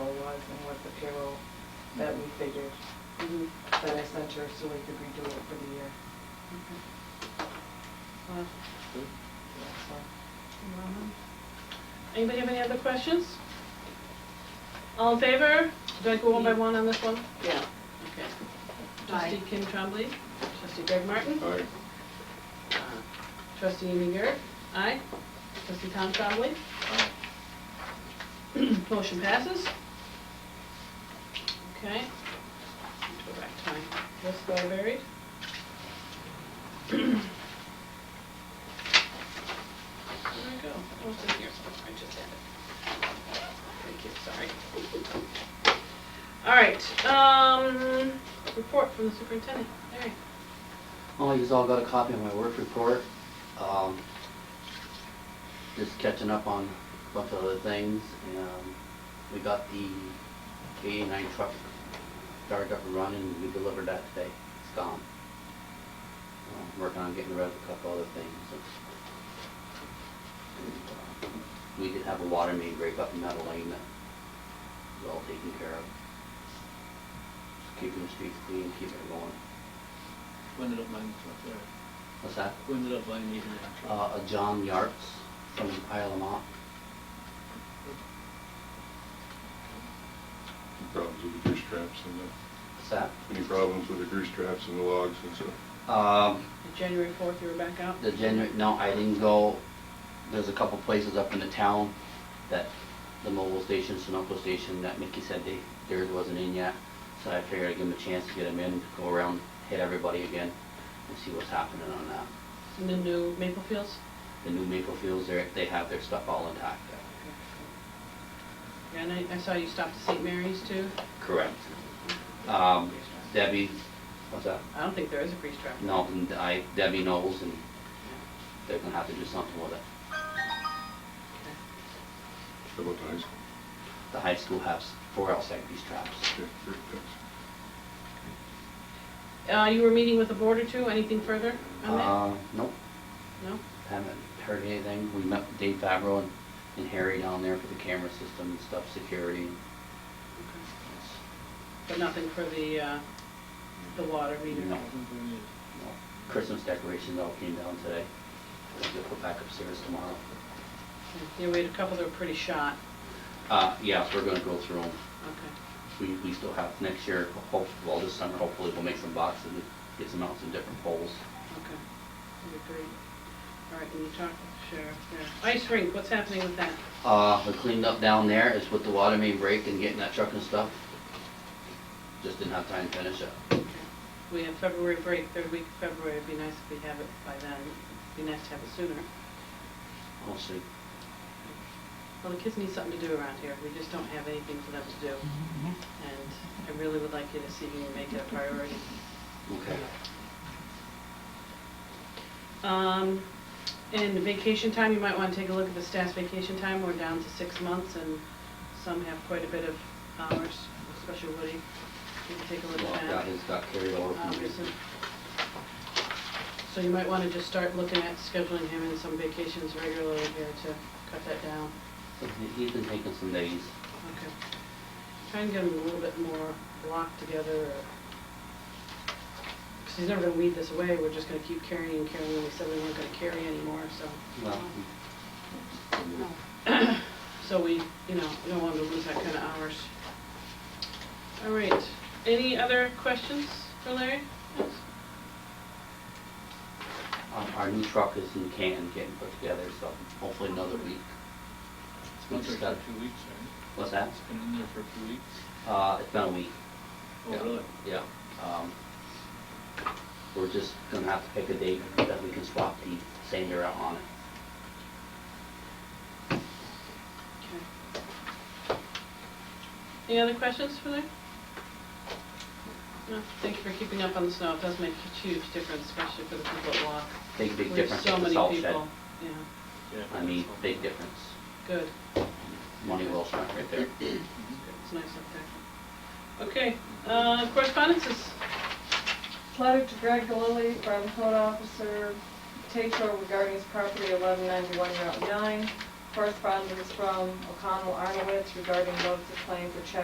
Mm-hmm. center so we could redo it for the year. Well, Yeah, so. Uh-huh. Anybody have any other questions? All in favor? Do I go one by one on this one? Yeah. Okay. Trustee Kim Trombley, trustee Greg Martin, Aye. uh, trustee Amy Garrett, aye. Trustee Tom Trombley. Motion passes. Okay. Go back time. Just got buried. There we go. Oh, it's in here somewhere. I just had it. Thank you, sorry. All right, um, report from the superintendent, Larry. Well, you've Oh, all got a copy of my work report. Um, Just catching up on a bunch of other things. Um, We got the K-9 truck started up and running, we delivered that today. It's gone. Um, Working on getting rid of a couple other things. And, uh, We did have a water main break up in Meadow Lane that was all taken care of. Just Keeping the streets clean, keeping it going. Who ended up buying the truck there? What's that? Who ended up buying the Indian uh, truck? uh, John Yartz from Isle of Mont. Any problems with the grease traps and the, What's that? any problems with the grease traps and the logs and so? Um, The January fourth, you were back out? the January, no, I didn't go, there's a couple places up in the town that the mobile station, Sunoco station, that Mickey said they, theirs wasn't in yet. So I figured I'd give them a chance to get them in, go around, hit everybody again and see what's happening on that. In the new Maple Fields? The new Maple Fields, they're, they have their stuff all intact. Yeah, and I, I saw you stopped at St. Mary's too. Correct. Um, Debbie, what's that? I don't think there is a grease trap. No, and I, Debbie knows and they're gonna have to do something with it. How about the high school? The high school has four outside grease traps. Okay, great, thanks. Uh, you were meeting with the board or two, anything further on that? Uh, nope, No? haven't heard anything. We met with Dave Fabro and, and Harry down there for the camera system and stuff, security. Okay. But nothing for the, uh, the water meter? No. I think we need- Well, Christmas decorations all came down today. They'll go back upstairs tomorrow. Yeah, we had a couple that were pretty shot. Uh, yeah, we're gonna go through 'em. Okay. We, we still have next year, hope, well, this summer, hopefully we'll make some boxes and get some out some different poles. Okay. That'd be great. All right, and you talked to the sheriff there. Ice rink, what's happening with that? Uh, the cleanup down there is with the water main break and getting that truck and stuff. Just didn't have time to finish it. We have February break, third week of February, it'd be nice if we have it by then. It'd be nice to have it sooner. We'll see. Well, the kids need something to do around here, we just don't have anything for them to do. And I really would like you to see me make it a priority. Okay. Um, and vacation time, you might wanna take a look at the staff's vacation time, we're down to six months, and some have quite a bit of hours, especially Woody. You can take a look Well, at that. that has got carried over from Um, so- the- So you might wanna just start looking at scheduling him in some vacations regularly here to cut that down. so he- He's been taking some days. Okay. Try and get him a little bit more locked together, because he's never gonna weed this away, we're just gonna keep carrying and carrying, we said we weren't gonna carry anymore, so. Well, Oh. So we, you know, we don't want to lose that kind of hours. All right, any other questions for Larry? Yes? um, our new truck is in Canton getting put together, so hopefully another week. It's We been just there got, for two weeks, right? what's that? It's been in there for a few weeks. Uh, it's been a week. Oh, Yeah, really? Yeah. Um, We're just gonna have to pick a date that we can swap the sander out on it. Okay. Any other questions for Larry? No, thank you for keeping up on the snow, it does make a huge difference, especially for the people that walk. Big, big We have difference so with the many salt shed. people. Yeah, Yeah. I mean, big difference. good, Money well spent right there. Mm-hmm. it's nice up there. Okay, uh, correspondences, Letter to Greg Galili from code officer Tatro regarding his property eleven ninety-one Route nine. Correspondence from O'Connell Arnowitz regarding notice of claim for check